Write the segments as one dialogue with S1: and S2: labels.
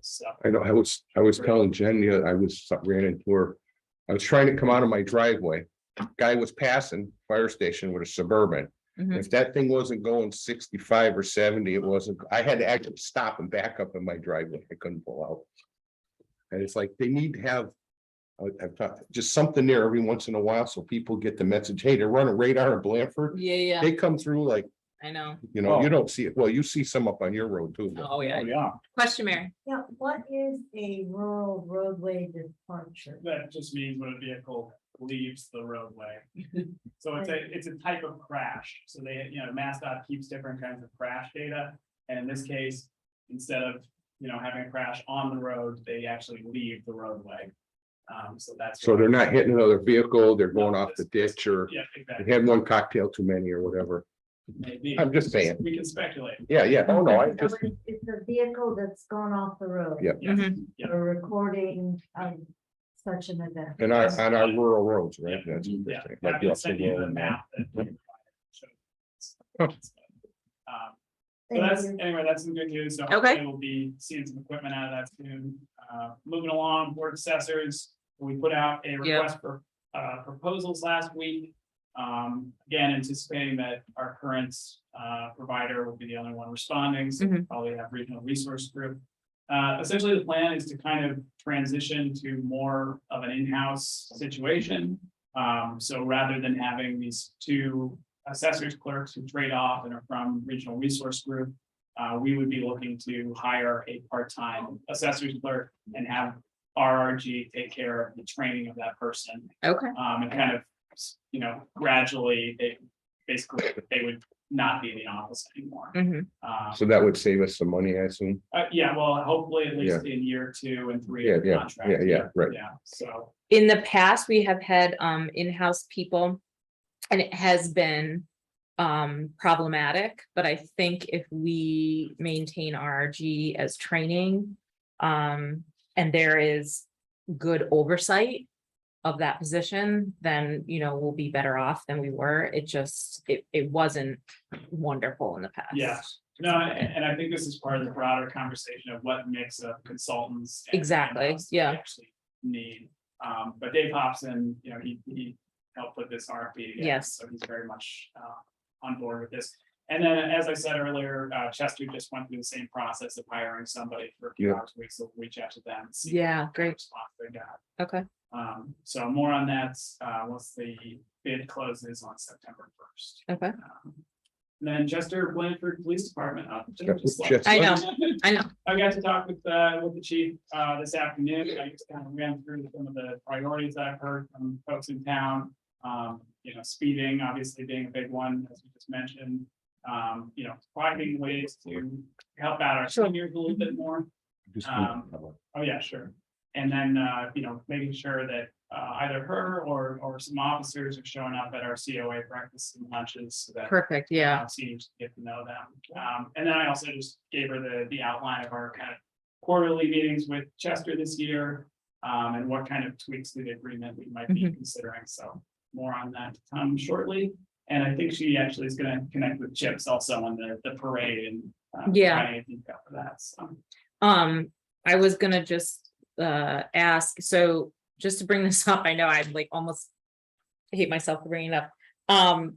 S1: so.
S2: I know, I was, I was telling Jen, the other- I was, ran into her. I was trying to come out of my driveway. Guy was passing fire station with a Suburban.
S3: Mhm.
S2: If that thing wasn't going sixty-five or seventy, it wasn't, I had to actually stop and back up in my driveway. I couldn't pull out. And it's like, they need to have. I- I've got just something there every once in a while, so people get the message, hey, they're running radar in Blanford.
S3: Yeah, yeah,
S2: They come through like,
S3: I know.
S2: you know, you don't see it. Well, you see some up on your road too. but-
S3: Oh, yeah.
S1: Oh, yeah,
S3: Question, Mary.
S4: Yeah, what is a rural roadway departure?
S1: that just means when a vehicle leaves the roadway. So it's a, it's a type of crash, so they, you know, Mass dot keeps different kinds of crash data, and in this case, instead of, you know, having a crash on the road, they actually leave the roadway. Um, so that's.
S2: So
S1: why-
S2: they're not hitting another vehicle, they're going off the ditch or
S1: Yeah,
S2: they
S1: exactly,
S2: had one cocktail too many or whatever.
S1: maybe.
S2: I'm just saying.
S1: We can speculate,
S2: Yeah, yeah. Oh, no, I
S4: So
S2: just,
S4: It's it's a vehicle that's gone off the road.
S2: Yeah.
S1: yes, yeah.
S4: A recording of such an event.
S2: and our, on our rural roads, right? That's what
S1: Yeah,
S2: they're saying,
S1: and I
S2: like, yeah,
S1: can send you the
S2: so,
S1: map that we provided. So it's- it's-
S2: Oh.
S1: Um, So
S4: Thank
S1: that's,
S4: you.
S1: anyway, that's some good news. So
S3: Okay.
S1: hopefully We'll be seeing some equipment out of that soon. Uh, moving along, board assessors, we put out a request for, uh, proposals last week. Um, again, anticipating that our current, uh, provider will be the only one responding, so we'll probably have regional resource group. Uh, essentially, the plan is to kind of transition to more of an in-house situation. Um, so rather than having these two assessors clerks who trade off and are from regional resource group, uh, we would be looking to hire a part-time assessor's clerk and have RRG take care of the training of that person.
S3: Okay,
S1: Um, and kind of, you know, gradually, they, basically, they would not be in the office anymore.
S3: Mhm.
S1: Um,
S2: so that would save us some money, I assume.
S1: uh, yeah, well, hopefully at least in year two and three. of the
S2: Yeah, yeah,
S1: contract.
S2: yeah, yeah, right.
S1: Yeah, so,
S3: In the past, we have had um in-house people. And it has been um problematic, but I think if we maintain RRG as training. Um, and there is good oversight of that position, then, you know, we'll be better off than we were. It just, it it wasn't wonderful in the past.
S1: Yeah. no, and, and I think this is part of the broader conversation of what mix of consultants. and
S3: Exactly,
S1: in-house we
S3: yeah.
S1: Actually need, um, but Dave Hobson, you know, he, he helped put this RFP together.
S3: Yes.
S1: So he's very much, uh, on board with this. And then, as I said earlier, uh, Chester just went through the same process of hiring somebody for a few
S2: Yeah.
S1: hours a week, so we'll reach out to them. and see
S3: Yeah,
S1: what
S3: great,
S1: Response they got.
S3: okay.
S1: Um, so more on that, uh, once the bid closes on September first. Um,
S3: Okay.
S1: Then Chester Blanford Police Department. uh,
S2: Chester-
S1: just like-
S2: Chester.
S3: I know, I know.
S1: I got to talk with, uh, with the chief, uh, this afternoon. I just kind of ran through some of the priorities that I've heard from folks in town. Um, you know, speeding obviously being a big one, as we just mentioned. Um, you know, finding ways to help out our
S3: Sure.
S1: seniors a little bit more.
S2: Just-
S1: Um, Oh, yeah, sure. And then, uh, you know, making sure that, uh, either her or, or some officers are showing up at our COA breakfasts and lunches so that.
S3: Perfect, yeah.
S1: uh, Seniors get to know them. Um, and then I also just gave her the, the outline of our kind of quarterly meetings with Chester this year. Um, and what kind of tweaks to the agreement we might be considering, so more on that to come shortly. And I think she actually is gonna connect with Chips also on the, the parade and. uh,
S3: Yeah.
S1: provide any detail for that, so.
S3: Um, I was gonna just uh ask, so just to bring this up, I know I'm like almost hate myself for bringing it up. Um,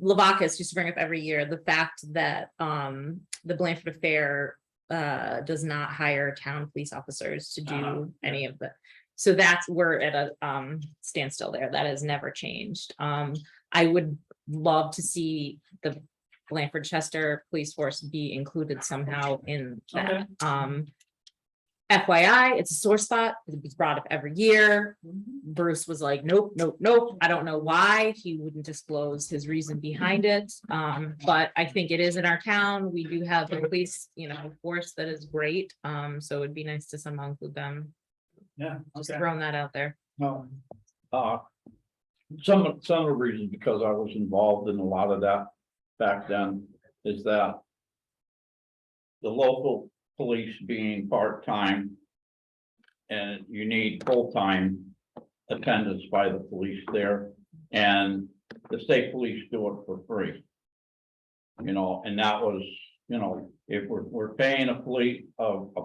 S3: Lavacas used to bring up every year the fact that um the Blanford Affair uh does not hire town police officers to
S1: Uh-huh,
S3: do any of the, so that's, we're at a um standstill there. That has never changed. Um, I would love to see the Blanford Chester Police Force be included somehow in
S1: Okay.
S3: that. Um, FYI, it's a sore spot. It's brought up every year. Bruce was like, nope, nope, nope. I don't know why. He wouldn't disclose his reason behind
S1: Mm-hmm.
S3: it. Um, but I think it is in our town. We do have a police, you know, force that is great. Um, so it'd be nice to somehow include them.
S1: Yeah.
S3: Just
S1: okay.
S3: throwing that out there.
S5: No. Uh, some, of- some of the reasons, because I was involved in a lot of that back then, is that the local police being part-time and you need full-time attendance by the police there, and the state police do it for free. You know, and that was, you know, if we're, we're paying a police, a, a